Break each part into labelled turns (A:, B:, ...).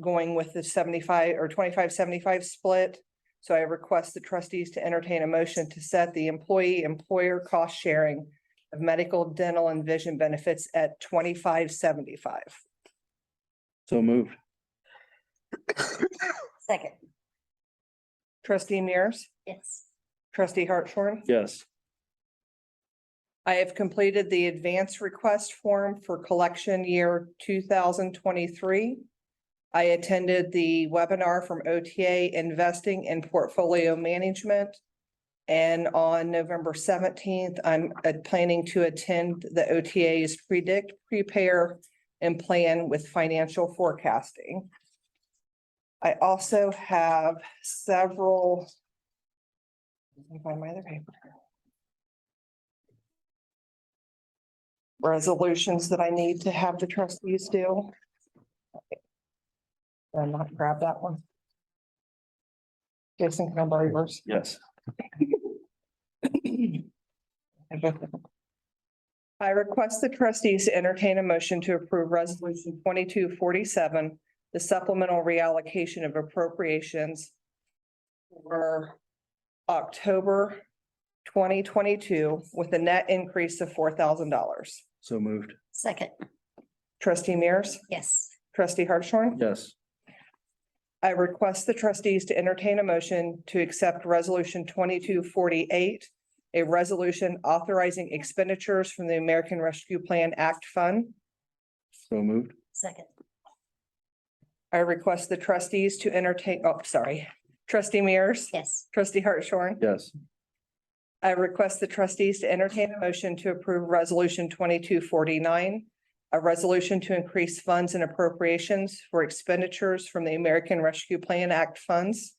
A: going with the seventy-five or twenty-five, seventy-five split. So I request the trustees to entertain a motion to set the employee employer cost sharing of medical, dental and vision benefits at twenty-five, seventy-five.
B: So moved.
C: Second,
A: Trustee Mears,
C: yes.
A: trustee Hartshorn.
B: Yes.
A: I have completed the advance request form for collection year two thousand twenty-three. I attended the webinar from OTA Investing in Portfolio Management. And on November seventeenth, I'm uh, planning to attend the OTA's Predict, Prepare, and Plan with Financial Forecasting. I also have several. Let me Find my other paper. resolutions that I need to have the trustees do. i not grab that one. Jason, can I borrow yours?
B: Yes.
A: I request the trustees to entertain a motion to approve resolution twenty-two forty-seven, the supplemental reallocation of appropriations for October twenty twenty-two with a net increase of four thousand dollars.
B: So moved.
C: Second,
A: Trustee Mears,
C: yes.
A: trustee Hartshorn.
B: Yes.
A: I request the trustees to entertain a motion to accept resolution twenty-two forty-eight, a resolution authorizing expenditures from the American Rescue Plan Act Fund.
B: So moved.
C: Second,
A: I request the trustees to entertain, oh, sorry, trustee Mears,
C: yes.
A: trustee Hartshorn.
B: Yes.
A: I request the trustees to entertain a motion to approve resolution twenty-two forty-nine, a resolution to increase funds and appropriations for expenditures from the American Rescue Plan Act funds.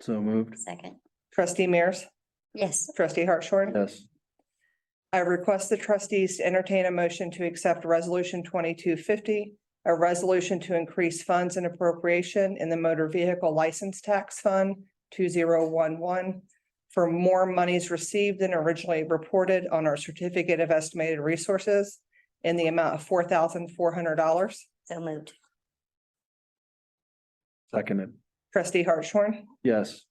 B: So moved.
C: Second,
A: Trustee Mears,
C: yes.
A: trustee Hartshorn.
B: Yes.
A: I request the trustees to entertain a motion to accept resolution twenty-two fifty, a resolution to increase funds and appropriation in the motor vehicle license tax fund two zero one one for more monies received than originally reported on our certificate of estimated resources in the amount of four thousand four hundred dollars.
C: So moved,
B: Seconded.
A: Trustee Hartshorn,
B: Yes.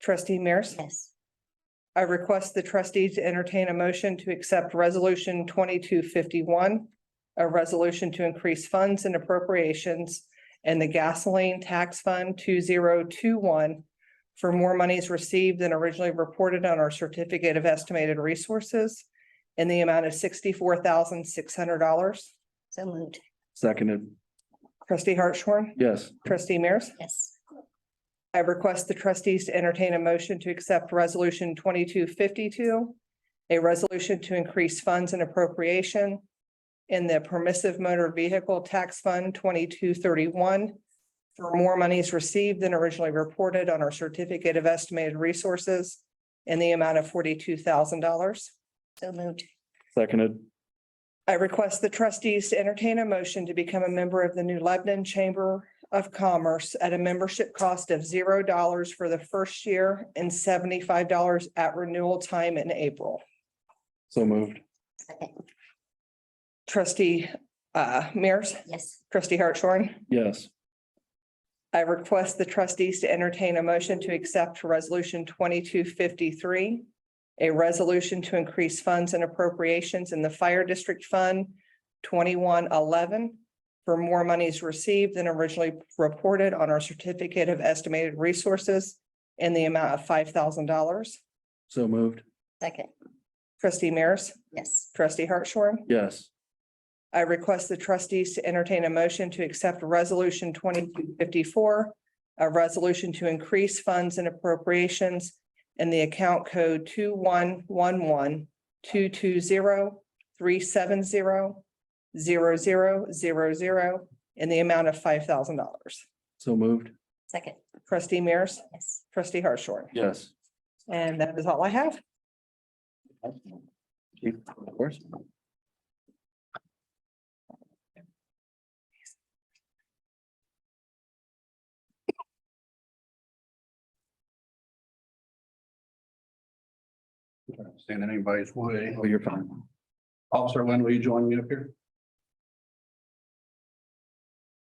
A: trustee Mears.
C: yes.
A: I request the trustees to entertain a motion to accept resolution twenty-two fifty-one, a resolution to increase funds and appropriations and the gasoline tax fund two zero two one for more monies received than originally reported on our certificate of estimated resources in the amount of sixty-four thousand six hundred dollars.
C: So moved,
B: Seconded.
A: Trustee Hartshorn,
B: Yes.
A: trustee Mears.
C: yes.
A: I request the trustees to entertain a motion to accept resolution twenty-two fifty-two, a resolution to increase funds and appropriation in the permissive motor vehicle tax fund twenty-two thirty-one for more monies received than originally reported on our certificate of estimated resources in the amount of forty-two thousand dollars.
C: So moved,
B: Seconded.
A: I request the trustees to entertain a motion to become a member of the New Lebanon Chamber of Commerce at a membership cost of zero dollars for the first year and seventy-five dollars at renewal time in April.
B: So moved.
C: second,
A: Trustee uh Mears,
C: yes.
A: trustee Hartshorn,
B: Yes.
A: I request the trustees to entertain a motion to accept resolution twenty-two fifty-three, a resolution to increase funds and appropriations in the Fire District Fund twenty-one eleven for more monies received than originally reported on our certificate of estimated resources in the amount of five thousand dollars.
B: So moved.
C: Second,
A: Trustee Mears,
C: yes.
A: trustee Hartshorn.
B: Yes.
A: I request the trustees to entertain a motion to accept resolution twenty-two fifty-four, a resolution to increase funds and appropriations in the account code two one one one two two zero three seven zero zero zero zero zero in the amount of five thousand dollars.
B: So moved.
C: Second,
A: Trustee Mears,
C: yes.
A: trustee Hartshorn,
B: Yes.
A: and that is all I have.
B: Chief, Of course.
D: Stand in anybody's way.
B: Oh, you're fine.
D: Officer Lynn, will you join me up here?